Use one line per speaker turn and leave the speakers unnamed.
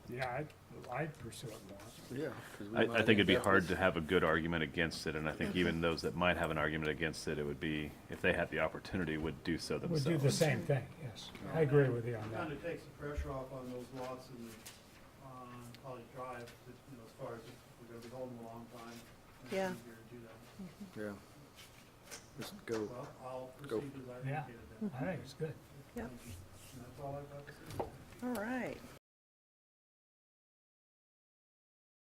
yeah, I'd, I'd pursue it more.
Yeah. 'cause we
I,
might
I think it'd be
have
hard
this.
to have a good argument against it, and I think even those that might have an argument against it, it would be, if they had the opportunity, would do so
Would do the
themselves.
same thing, yes. I agree with you on
Kind
that.
of takes the pressure off on those lots and on College Drive, that, you know, as far as if we're gonna be holding a long time. and it's
Yeah.
easier to do that.
Yeah. Just go.
Well, I'll
Go.
proceed as I
Yeah.
indicated then.
I think it's good.
And that's all I've got to say.
All right.